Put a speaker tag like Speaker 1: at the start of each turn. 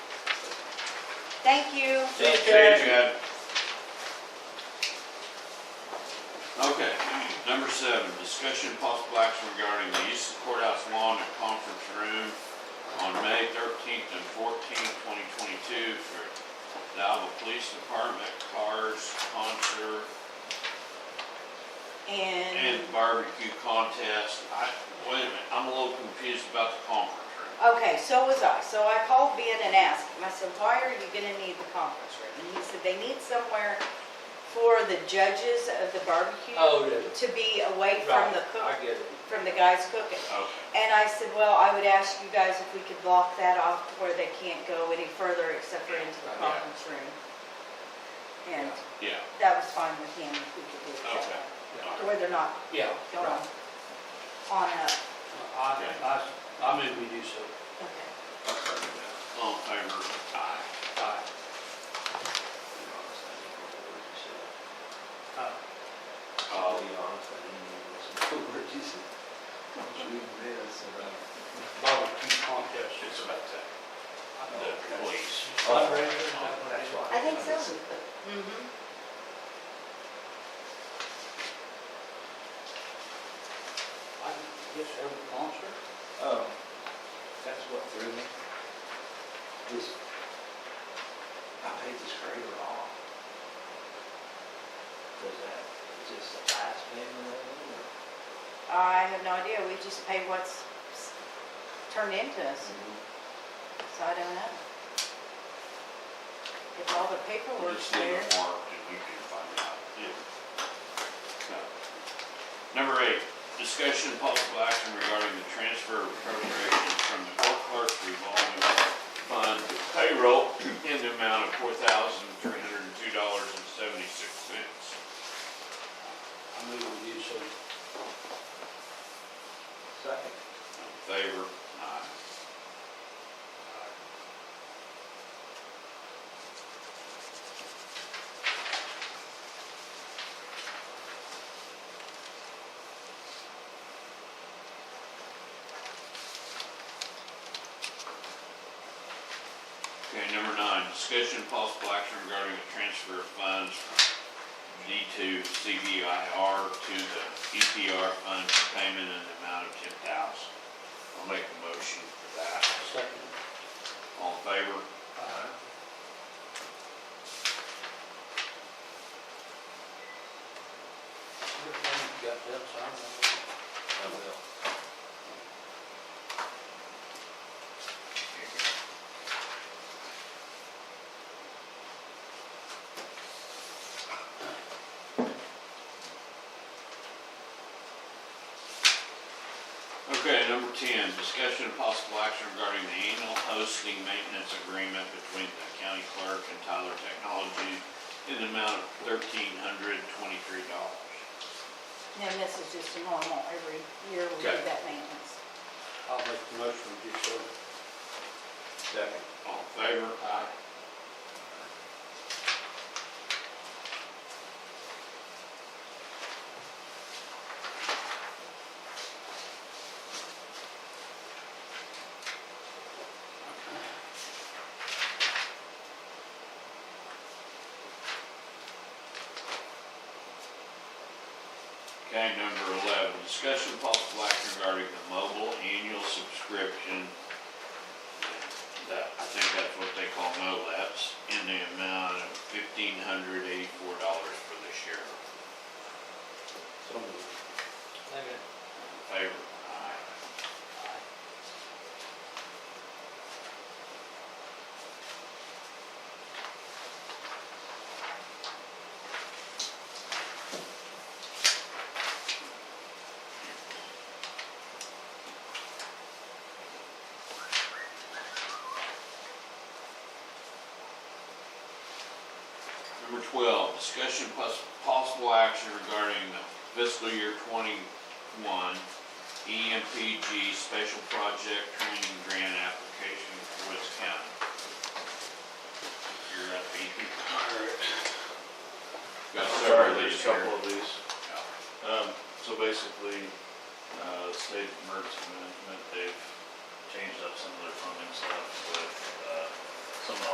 Speaker 1: Thank you.
Speaker 2: See you,
Speaker 3: See
Speaker 2: Chad.
Speaker 3: you, Chad. Okay, number seven, discussion and possible action regarding the use of courthouse lawn and conference room on May thirteenth and fourteenth, twenty twenty-two for the Alva Police Department, cars, concert, and
Speaker 1: And,
Speaker 3: barbecue contest. I, wait a minute, I'm a little confused about the conference room.
Speaker 1: okay, so was I. So I called Ben and asked him, I said, why are you gonna need the conference room? And he said, they need somewhere for the judges of the barbecue
Speaker 2: Oh, to-
Speaker 1: to be away from
Speaker 2: Right,
Speaker 1: the
Speaker 2: I
Speaker 1: cook,
Speaker 2: get it.
Speaker 1: from the guys cooking.
Speaker 3: Okay,
Speaker 1: And I said, well, I would ask you guys if we could block that off to where they can't go any further except for into the
Speaker 2: Yeah.
Speaker 1: conference room. And
Speaker 3: yeah,
Speaker 1: that was fine with him if we could do that.
Speaker 3: Okay.
Speaker 2: Yeah.
Speaker 1: To where they're not
Speaker 2: Yeah,
Speaker 1: going
Speaker 2: right.
Speaker 1: on up.
Speaker 2: I, I, I mean, we do so.
Speaker 1: Okay.
Speaker 3: all in favor? Aye.
Speaker 2: Aye. Uh,
Speaker 4: I'll be honest, I didn't even listen to what you said. I was reading this and I.
Speaker 2: Barbecue contest.
Speaker 3: It's about that. the
Speaker 2: I
Speaker 3: police.
Speaker 2: That's why.
Speaker 1: I think so.
Speaker 4: listened.
Speaker 1: Mm-hmm.
Speaker 2: guess every concert,
Speaker 4: Oh, that's what threw me. This, I paid this grader off. Was that, is this the last payment of it or?
Speaker 1: I have no idea, we just pay what's s- turned into us, so I don't know. If all the paperwork's
Speaker 3: Just leave
Speaker 1: there,
Speaker 3: it marked and you can find out. Yeah. Number eight, discussion and possible action regarding the transfer of appropriations from the court clerk revolving fund to payroll in the amount of four thousand three hundred and two dollars and seventy-six cents.
Speaker 2: I mean, we do so.
Speaker 4: Second.
Speaker 3: Favor? Aye. Okay, number nine, discussion and possible action regarding the transfer of funds from D two CBIR to the EPR fund for payment in the amount of ten thousand. I'll make a motion for that.
Speaker 2: Second.
Speaker 3: All in favor?
Speaker 2: Aye. You got that signed?
Speaker 4: I will.
Speaker 3: Okay, number ten, discussion of possible action regarding the annual hosting maintenance agreement between the county clerk and Tyler Technology in the amount of thirteen hundred twenty-three dollars.
Speaker 1: then this is just a normal, every year we do
Speaker 3: Okay.
Speaker 1: that maintenance.
Speaker 2: I'll make the motion, we do so.
Speaker 4: Second.
Speaker 3: All in favor? Aye. Okay, number 11, discussion of possible action regarding the mobile annual subscription that, I think that's what they call MOLAPs, in the amount of fifteen hundred eighty-four dollars for this year.
Speaker 4: So moved.
Speaker 2: Second.
Speaker 3: All in Favor? Aye. Number twelve, discussion plus possible action regarding the fiscal year twenty-one E EMPG Special Project Training Grant Application for Woods County. You're up, Ethan. Got several of
Speaker 5: Sorry,
Speaker 3: these
Speaker 5: there's a
Speaker 3: here.
Speaker 5: couple of these. Um, so basically, uh, the state emergency management, they've changed up some of their funding stuff with, uh, some of the